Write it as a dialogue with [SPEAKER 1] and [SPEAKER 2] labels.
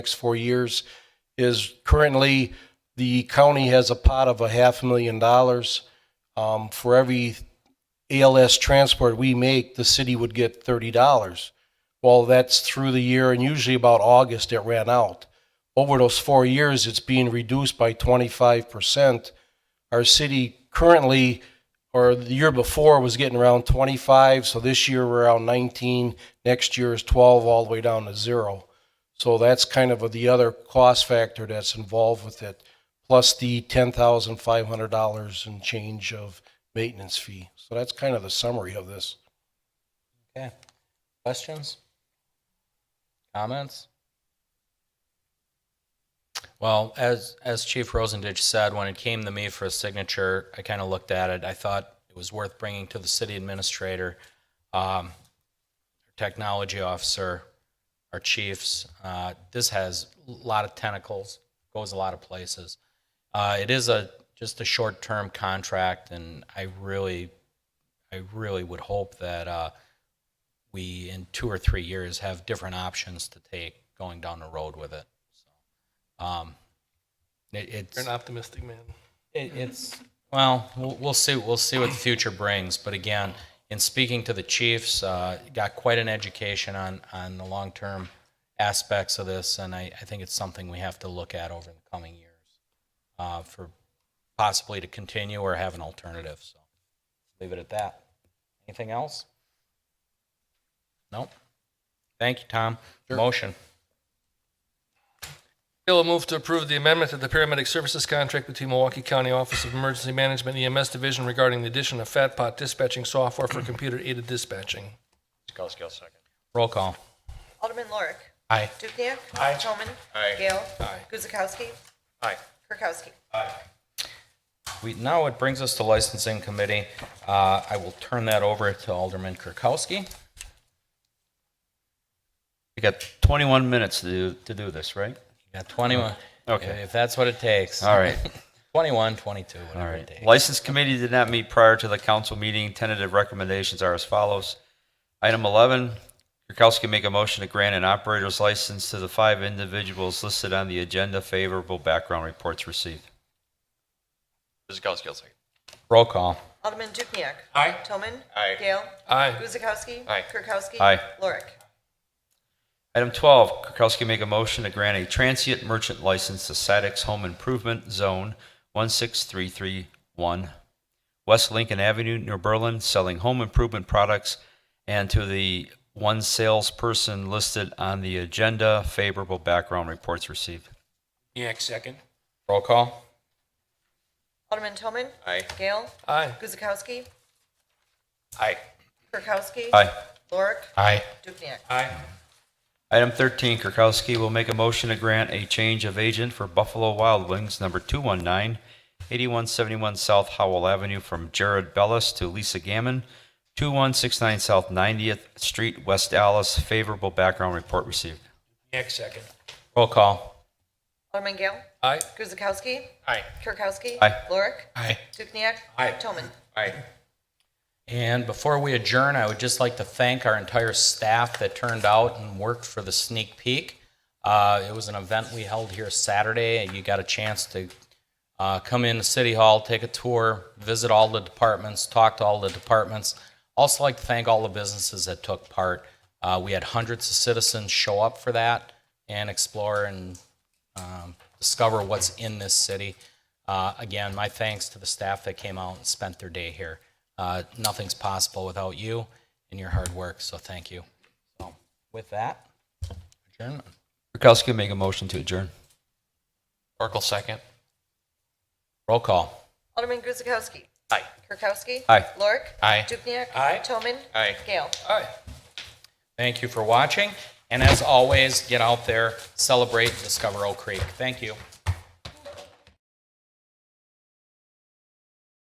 [SPEAKER 1] next four years is currently the county has a pot of a half a million dollars. Um, for every ALS transport we make, the city would get thirty dollars. Well, that's through the year and usually about August it ran out. Over those four years, it's being reduced by twenty-five percent. Our city currently, or the year before, was getting around twenty-five, so this year we're around nineteen, next year is twelve, all the way down to zero. So that's kind of the other cost factor that's involved with it, plus the ten thousand five hundred dollars and change of maintenance fee. So that's kind of the summary of this.
[SPEAKER 2] Okay. Questions? Comments? Well, as, as Chief Rosendich said, when it came to me for a signature, I kind of looked at it. I thought it was worth bringing to the city administrator, um, technology officer, our chiefs. Uh, this has a lot of tentacles, goes a lot of places. Uh, it is a, just a short-term contract and I really, I really would hope that, uh, we in two or three years have different options to take going down the road with it. So, um, it, it's
[SPEAKER 3] You're an optimistic man.
[SPEAKER 2] it, it's well, well, we'll see. We'll see what the future brings. But again, in speaking to the chiefs, uh, got quite an education on on the long term aspects of this, and I, I think it's something we have to look at over the coming years uh, for possibly to continue or have an alternative. So leave it at that. Anything else? Nope. Thank you, Tom. Motion.
[SPEAKER 3] Bill will move to approve the amendment to the paramedic services contract between Milwaukee County Office of Emergency Management and EMS Division regarding the addition of Fat Pot dispatching software for computer-aided dispatching.
[SPEAKER 4] Kuzakowski, I'll second.
[SPEAKER 2] Roll call.
[SPEAKER 5] Alderman Lorik.
[SPEAKER 2] Aye.
[SPEAKER 5] Dukenyak. Aye. Toman.
[SPEAKER 4] Aye.
[SPEAKER 5] Gale. Aye. Guzekowski.
[SPEAKER 4] Aye.
[SPEAKER 5] Kirkowski.
[SPEAKER 2] We, now it brings us to licensing committee. Uh, I will turn that over to Alderman Kirkowski.
[SPEAKER 6] You got 21 minutes to do, to do this, right?
[SPEAKER 2] You got 21.
[SPEAKER 6] Mm. Okay.
[SPEAKER 2] If- If that's what it takes.
[SPEAKER 6] All right,
[SPEAKER 2] 21, 22,
[SPEAKER 6] all
[SPEAKER 2] whatever it
[SPEAKER 6] right.
[SPEAKER 2] takes.
[SPEAKER 6] License committee did not meet prior to the council meeting. Tentative recommendations are as follows. Item 11, Kirkowski make a motion to grant an operator's license to the five individuals listed on the agenda. Favorable background reports received.
[SPEAKER 4] Kuzakowski, I'll second.
[SPEAKER 2] Roll call.
[SPEAKER 5] Alderman Dukenyak.
[SPEAKER 3] Aye.
[SPEAKER 5] Toman.
[SPEAKER 4] Aye.
[SPEAKER 5] Gale.
[SPEAKER 3] Aye.
[SPEAKER 5] Guzekowski.
[SPEAKER 4] Aye.
[SPEAKER 5] Kirkowski.
[SPEAKER 6] Aye.
[SPEAKER 5] Lorik.
[SPEAKER 6] Item 12, Kirkowski make a motion to grant a transient merchant license to Sadix Home Improvement Zone 16331, West Lincoln Avenue, New Berlin, selling home improvement products, and to the one salesperson listed on the agenda. Favorable background reports received.
[SPEAKER 2] Roll call.
[SPEAKER 5] Alderman Toman.
[SPEAKER 4] Aye.
[SPEAKER 5] Gale.
[SPEAKER 3] Aye.
[SPEAKER 5] Guzekowski.
[SPEAKER 4] Aye.
[SPEAKER 5] Kirkowski.
[SPEAKER 6] Aye.
[SPEAKER 5] Lorik.
[SPEAKER 2] Aye.
[SPEAKER 5] Dukenyak.
[SPEAKER 6] Item 13, Kirkowski will make a motion to grant a change of agent for Buffalo Wild Wings, number 219, 8171 South Howell Avenue, from Jared Bellis to Lisa Gammon, 2169 South 90th Street, West Dallas. Favorable background report received.
[SPEAKER 3] Next second.
[SPEAKER 2] Roll call.
[SPEAKER 5] Alderman Gale.
[SPEAKER 3] Aye.
[SPEAKER 5] Guzekowski.
[SPEAKER 4] Aye.
[SPEAKER 5] Kirkowski.
[SPEAKER 6] Aye.
[SPEAKER 5] Lorik.
[SPEAKER 2] Aye.
[SPEAKER 5] Dukenyak.
[SPEAKER 4] Aye.
[SPEAKER 5] Toman.
[SPEAKER 4] Aye.
[SPEAKER 2] And before we adjourn, I would just like to thank our entire staff that turned out and worked for the sneak peek. Uh, it was an event we held here Saturday. and You got a chance to uh, come into City Hall, take a tour, visit all the departments, talk to all the departments. Also, like to thank all the businesses that took part. Uh, we had hundreds of citizens show up for that and explore and um, discover what's in this city. Uh, again, my thanks to the staff that came out and spent their day here. Uh, nothing's possible without you and your hard work, so thank you. So, with that, adjournment.
[SPEAKER 6] Kirkowski will make a motion to adjourn.
[SPEAKER 4] Oracle, second.
[SPEAKER 2] Roll call.
[SPEAKER 5] Alderman Guzekowski.
[SPEAKER 4] Aye.
[SPEAKER 5] Kirkowski.
[SPEAKER 6] Aye.
[SPEAKER 5] Lorik.
[SPEAKER 4] Aye.
[SPEAKER 5] Dukenyak.
[SPEAKER 3] Aye.
[SPEAKER 5] Toman.
[SPEAKER 4] Aye.
[SPEAKER 5] Gale.
[SPEAKER 3] Aye.
[SPEAKER 2] Thank you for watching. And as always, get out there, celebrate, discover Oak Creek. Thank you.